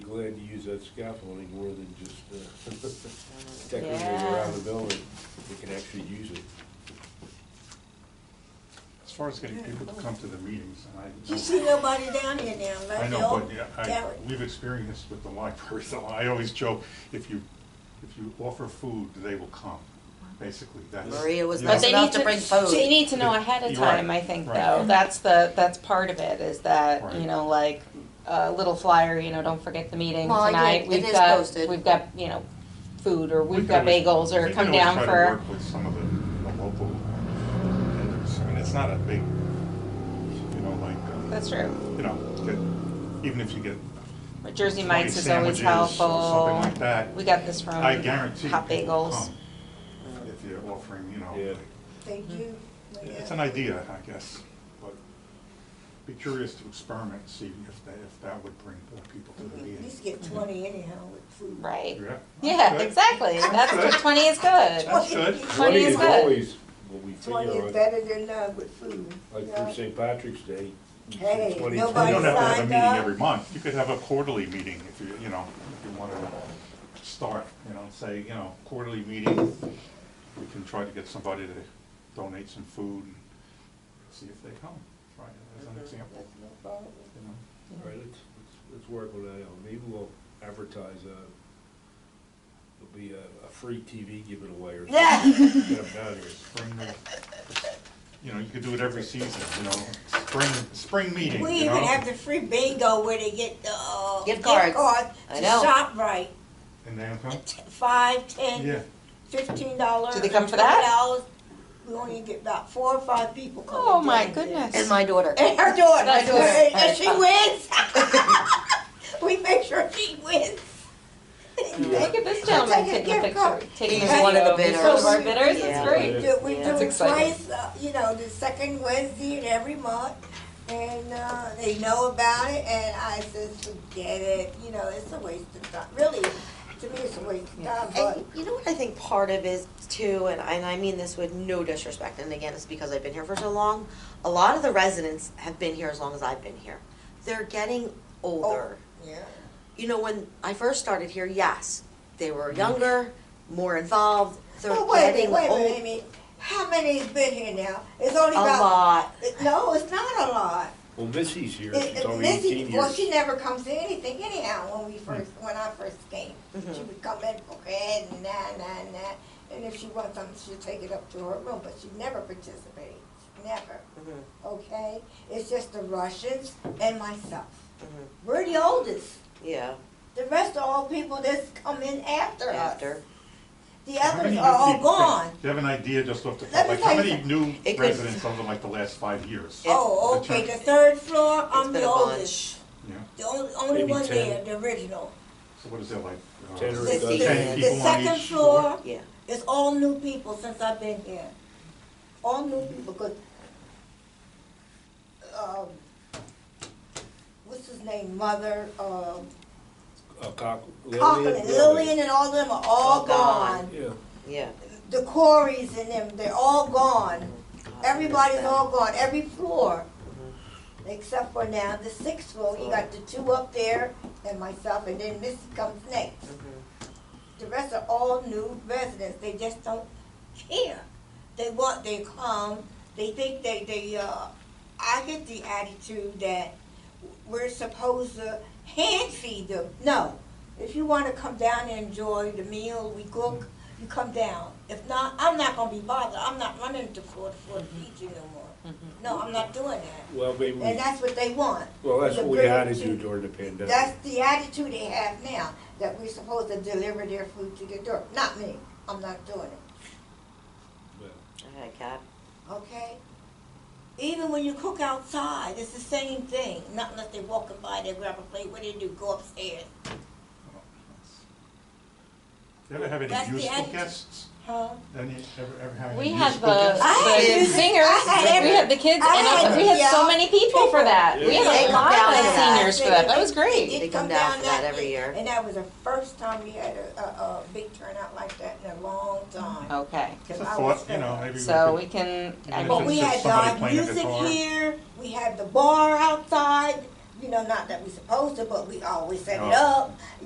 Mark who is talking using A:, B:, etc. A: glad you used that scaffolding more than just uh, decorating around
B: Yeah.
A: the building. You can actually use it.
C: As far as getting people to come to the meetings, and I.
B: You see nobody down here now, right?
C: I
B: They all
C: know, but yeah, I,
B: gathered.
C: we've experienced with the library, so I always joke, if you, if you offer food, they will come, basically, that's.
D: Maria was
C: you
E: But
C: know,
D: nice
E: they
D: enough
E: need
D: to
E: to,
D: bring food.
E: They need to know ahead of
C: You're right,
E: time, I think,
C: right.
E: though. That's the, that's part of it, is that,
C: Right.
E: you know, like, a little flyer, you know, don't forget the meeting
D: Well, I did-
E: tonight.
D: it
E: We've
D: is
E: got-
D: posted.
E: We've got, you know, food, or
C: we
E: we've
C: can
E: got bagels,
C: always- we
E: or
C: can
E: come
C: always
E: down
C: try to
E: for.
C: work with some of the, the local vendors, I mean, it's not a big, you know, like, uh,
E: That's true.
C: you know, get, even if you get
E: But Jersey Mike's is always
C: sandwiches or something
E: helpful.
C: like that.
E: We got this from
C: I guarantee
E: Hot
C: people will
E: Bagels.
C: come If you're offering, you
A: Yeah.
C: know,
B: Thank you.
C: it's an idea, I guess, but be curious to experiment, see if that, if that would bring more people to the
B: At
C: meeting.
B: least get twenty anyhow with food.
E: Right.
C: Yeah?
E: Mm-hmm. Yeah,
C: Good.
E: exactly. That's
C: Good.
E: what twenty is good.
C: That's good.
E: Twenty is good.
A: always what we
B: Twenty
A: figure
B: is
A: on,
B: better than none with food.
A: like
B: Yeah.
A: for St. Patrick's Day. you said
B: Hey,
A: 20,
C: You
B: nobody
C: don't have to have a
B: signed
C: meeting
B: up.
C: every month, you could have a quarterly meeting if you, you know, if you wanna start, you know, say, you know, quarterly meeting, we can try to get somebody to donate some food, and see if they come, try it as an example,
B: That's no problem.
C: you know.
A: All right, let's, let's- let's work on that out. Maybe we'll advertise, uh, it'll be a, a free TV given away or something. Get 'em down here.
C: spring, you know, you could do it every season, you know, spring, spring meeting,
B: We
C: you
B: even
C: know?
B: have the free bingo where they get the, uh,
D: Gift
B: gift
D: cards.
B: card
D: I
B: to
D: know.
B: shop right.
C: And then come,
B: Five,
C: yeah,
B: ten, fifteen dollars.
E: Do they come for that?
B: $20. We only get about four or five people coming.
E: Oh, my
B: down there.
E: goodness.
D: And my daughter.
B: And her daughter,
E: My daughter.
B: and and she wins. We make sure she wins.
E: Look at this gentleman
B: Take a
E: taking a
B: gift
E: picture,
B: card.
E: taking a
D: He's one of the
E: video. He's
D: bidders.
E: one of our bidders,
D: Yeah.
E: that's
B: We
E: great.
B: do, we do
D: Yeah.
E: That's
B: it
E: exciting.
B: twice, uh, you know, the second Wednesday in every month. And, uh, they know about it and I says, forget it, you know, it's a waste of time, really, to me, it's a waste of time, but.
D: And you know what I think part of is too, and I, and I mean this with no disrespect, and again, it's because I've been here for so long. A lot of the residents have been here as long as I've been here. They're getting older.
B: Yeah.
D: You know, when I first started here, yes, they were younger, more involved. They're
B: But Mm-hmm. wait a
D: getting
B: minute, wait a
D: old.
B: minute, Amy, how many's been here now? It's only
D: A
B: about,
D: lot.
B: no, it's not a lot.
A: Well, Missy's here.
B: It-
A: She's
B: it-
A: already
B: Missy,
A: eighteen years.
B: well,
A: Hmm.
B: she never comes to anything anyhow when we first, when I first came.
D: Mm-hmm.
B: She would come in for head and that, and that, and that. And if she wants something, she'll take it up to her room, but she never participates, never,
D: Mhm,
B: okay? It's just the Russians and myself.
D: mhm.
B: We're the oldest.
D: Yeah,
B: The rest are all people that's come in after us.
D: after.
B: The
C: How many
B: others
C: new
B: are all
C: people-
B: gone.
C: Do you have an idea just off the,
B: Let
C: top?
B: me
C: like, how
B: tell you
C: many new
D: It could-
C: residents over like the last five years?
D: Yeah.
B: Oh,
C: The
B: okay,
C: turn-
B: the third floor,
D: It's
B: I'm
D: been
B: the
D: a
B: oldest.
D: bunch.
C: Yeah,
B: The only, only
A: Maybe
B: one
A: 10.
B: there, the original.
C: so what is that like? uh,
A: Ten or
B: The-
A: dozen.
B: the-
C: Ten people
B: The
C: on
B: second
C: each
B: floor,
D: Yeah.
B: It's all new people since I've been here. All new people, because, um, what's his name, mother, um,
A: A cock.
B: Cochran and Lillian and all them are all
D: All gone.
B: gone.
A: Yeah.
D: Yeah.
B: The Corys and them, they're all gone. Everybody's all gone, every floor. Except for now, the sixth floor, you got the two up there and myself, and then Missy comes next.
D: Mm-hmm.
B: The rest are all new residents, they just don't care. They want, they come, they think they, they, uh, I get the attitude that we're supposed to hand feed them. No, if you wanna come down and enjoy the meal we cook, you come down. If not, I'm not gonna be bothered, I'm not running to floor to floor to feed you no more. No, I'm not doing that.
A: Well, maybe, we-
B: And that's what they want.
A: well, that's
B: the
A: what we had to
B: ability
A: do
B: to-
A: during the
C: uh,
A: pandemic.
B: That's the attitude they have now, that we're supposed to deliver their food to their door. Not me, I'm not doing it,
A: Yeah.
D: I had a cat.
B: okay? Even when you cook outside, it's the same thing, not unless they're walking by, they grab a plate, what do they do, go upstairs,
C: You ever have
B: That's
C: any
B: the
C: musical
B: attitude.
C: guests?
B: huh?
C: Any, ever, ever have
E: We uh,
C: any
E: had
C: musical
E: the,
C: guests?
B: I had
E: the
B: music-
E: singers,
B: I had
E: we had the kids,
B: I had-
E: and we had so
B: yeah.
E: many people for that. We had a
D: They come
E: lot
D: down for
E: of
D: that.
E: seniors for that, that was great.
D: They
B: It
D: come down for that every year.
B: And that was the first time we had a, a, a big turnout like that in a long time.
E: Okay,
C: It's
B: 'Cause
C: a
B: I
C: thought,
B: was
C: you know,
B: fed up.
C: maybe we
E: so
C: could-
E: we can, I mean,
C: Even if it's
B: But we
C: just
B: had
C: somebody
B: live
C: playing a
B: music
C: guitar.
B: here, we had the bar outside, you know, not that we supposed to, but we always set it
C: Oh.
B: up.